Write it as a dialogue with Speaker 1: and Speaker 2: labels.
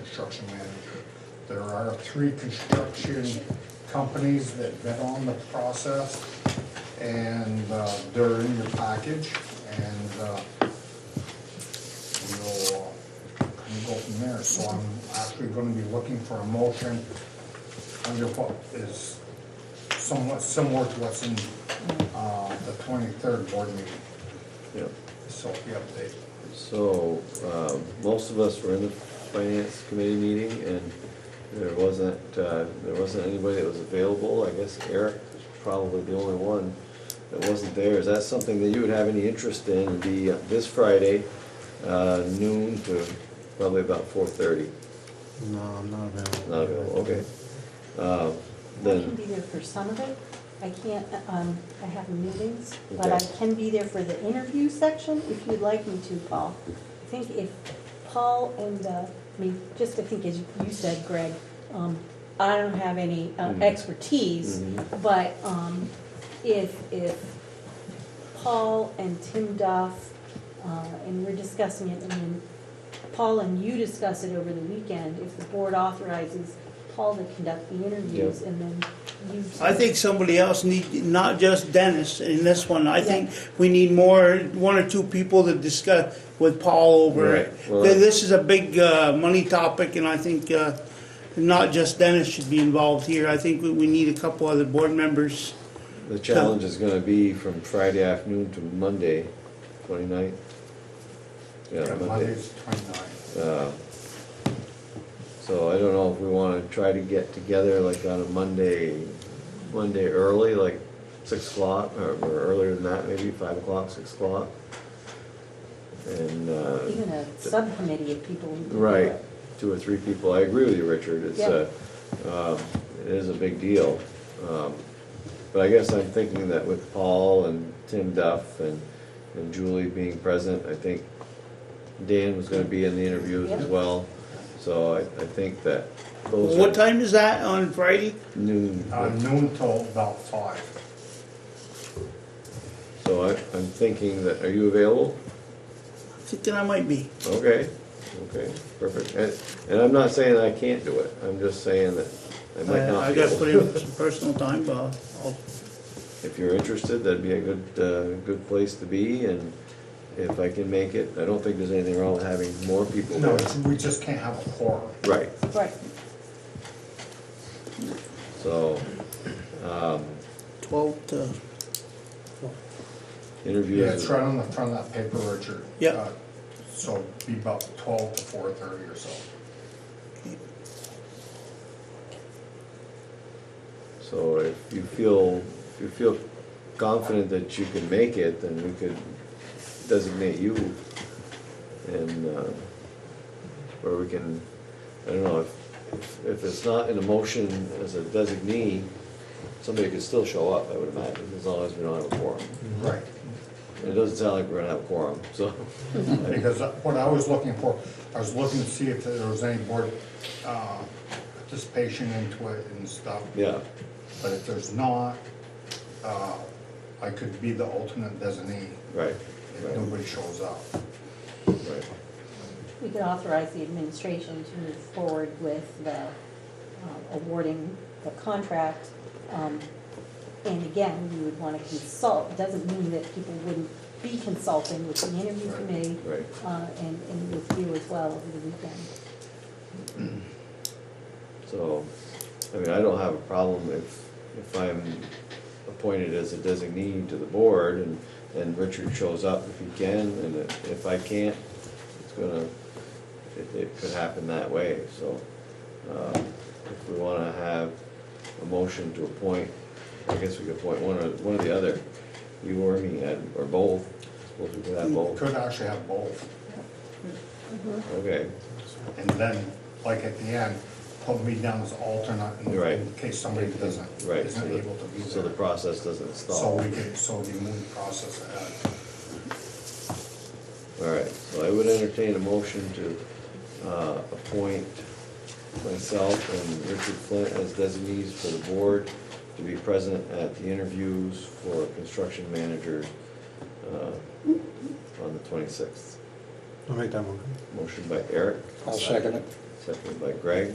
Speaker 1: construction manager. There are three construction companies that bid on the process, and uh, they're in your package, and uh, we'll uh, kind of go from there. So I'm actually gonna be looking for a motion under what is somewhat similar to what's in uh, the twenty-third board meeting.
Speaker 2: Yep.
Speaker 1: So the update.
Speaker 2: So, um, most of us were in the finance committee meeting and there wasn't, uh, there wasn't anybody that was available. I guess Eric was probably the only one that wasn't there. Is that something that you would have any interest in? It'd Be uh, this Friday, uh, noon to probably about four thirty.
Speaker 3: No, I'm not available.
Speaker 2: Not available, okay. Uh,
Speaker 4: I can
Speaker 2: Then,
Speaker 4: be there for some of it. I can't, um, I have meetings, but I
Speaker 2: Okay.
Speaker 4: can be there for the interview section if you'd like me to, Paul. I think if Paul and, uh, I mean, just I think as you said, Greg, um, I don't have any uh,
Speaker 2: Mhm.
Speaker 4: expertise,
Speaker 2: Mhm.
Speaker 4: but, um, if, if Paul and Tim Duff, uh, and we're discussing it, and then Paul and you discuss it over the weekend, if the board authorizes Paul to conduct the interviews, and then you.
Speaker 5: I think somebody else need, not just Dennis in this one, I think we need more, one or two people to discuss with Paul over it.
Speaker 2: Right, well-
Speaker 5: Th- This is a big, uh, money topic and I think, uh, not just Dennis should be involved here, I think we, we need a couple other board members.
Speaker 2: the challenge is gonna be from Friday afternoon to Monday, twenty-ninth. Yeah, Monday.
Speaker 1: Monday's twenty-nine.
Speaker 2: Uh, So I don't know if we wanna try to get together like on a Monday, Monday early, like six o'clock, or or earlier than that, maybe five o'clock, six o'clock. And, uh,
Speaker 4: Even a subcommittee of people. who do
Speaker 2: right,
Speaker 4: it.
Speaker 2: two or three people, I agree with you, Richard, it's a, um, it is a big deal. Um, But I guess I'm thinking that with Paul and Tim Duff and, and Julie being present, I think Dan was gonna be in the interviews as
Speaker 4: Yep.
Speaker 2: well. So I, I think that those
Speaker 5: What
Speaker 2: are
Speaker 5: time is that on Friday?
Speaker 2: noon.
Speaker 1: Uh, noon till about five.
Speaker 2: So I, I'm thinking that, are you available?
Speaker 5: I'm Thinking I might be.
Speaker 2: Okay, okay, perfect. And, and I'm not saying I can't do it, I'm just saying that I might
Speaker 5: Uh,
Speaker 2: not
Speaker 5: I
Speaker 2: be
Speaker 5: gotta
Speaker 2: able
Speaker 5: put in some personal time, but I'll- I'll
Speaker 2: If you're interested, that'd be a good, uh, good place to be, and if I can make it, I don't think there's anything wrong with having more people
Speaker 1: No,
Speaker 2: there.
Speaker 1: we just can't have a quorum.
Speaker 2: Right,
Speaker 4: Right,
Speaker 2: so, um,
Speaker 5: twelve to,
Speaker 1: Yeah, it's
Speaker 2: interviews,
Speaker 1: right on the front of that paper, Richard.
Speaker 5: Yeah.
Speaker 1: Uh, So be about twelve to four thirty or so.
Speaker 2: so if you feel, if you feel confident that you can make it, then we could designate you, and, uh, or we can, I don't know, if, if it's not in a motion as a designee, somebody could still show up, I would imagine, as long as we don't have a quorum.
Speaker 1: Right.
Speaker 2: It doesn't sound like we're gonna have a quorum, so.
Speaker 1: Because uh, what I was looking for, I was looking to see if there was any board uh, participation into it and stuff.
Speaker 2: Yeah,
Speaker 1: But if there's not, uh, I could be the alternate designee
Speaker 2: right,
Speaker 1: if
Speaker 2: right,
Speaker 1: nobody shows up.
Speaker 2: right.
Speaker 4: we could authorize the administration to move forward with the um, awarding the contract. um, And again, we would want to consult, doesn't mean that people wouldn't be consulting with the interview
Speaker 1: Right,
Speaker 4: committee.
Speaker 2: right.
Speaker 4: uh, And, and with you as well over the weekend.
Speaker 2: So, I mean, I don't have a problem if, if I'm appointed as a designee to the board and, and Richard shows up if he can, and if if I can't, it's gonna, it, it could happen that way, so. um, If we wanna have a motion to appoint, I guess we could appoint one or, one or the other, you or me, and- or both, suppose we could have both,
Speaker 1: Could actually have both.
Speaker 2: okay.
Speaker 1: And then, like at the end, put me down as alternate in-
Speaker 2: Right.
Speaker 1: in case somebody doesn't,
Speaker 2: Right, so
Speaker 1: isn't
Speaker 2: the,
Speaker 1: able to be
Speaker 2: so the
Speaker 1: there.
Speaker 2: process doesn't stall.
Speaker 1: So
Speaker 2: All
Speaker 1: we can, so we move the process uh, ahead.
Speaker 2: right, so I would entertain a motion to uh, appoint myself and Richard Flint as designees for the board to be present at the interviews for construction manager uh, on the 26th.
Speaker 3: I'll make that one.
Speaker 2: Motion by Eric.
Speaker 6: I'll second it.
Speaker 2: seconded by Greg.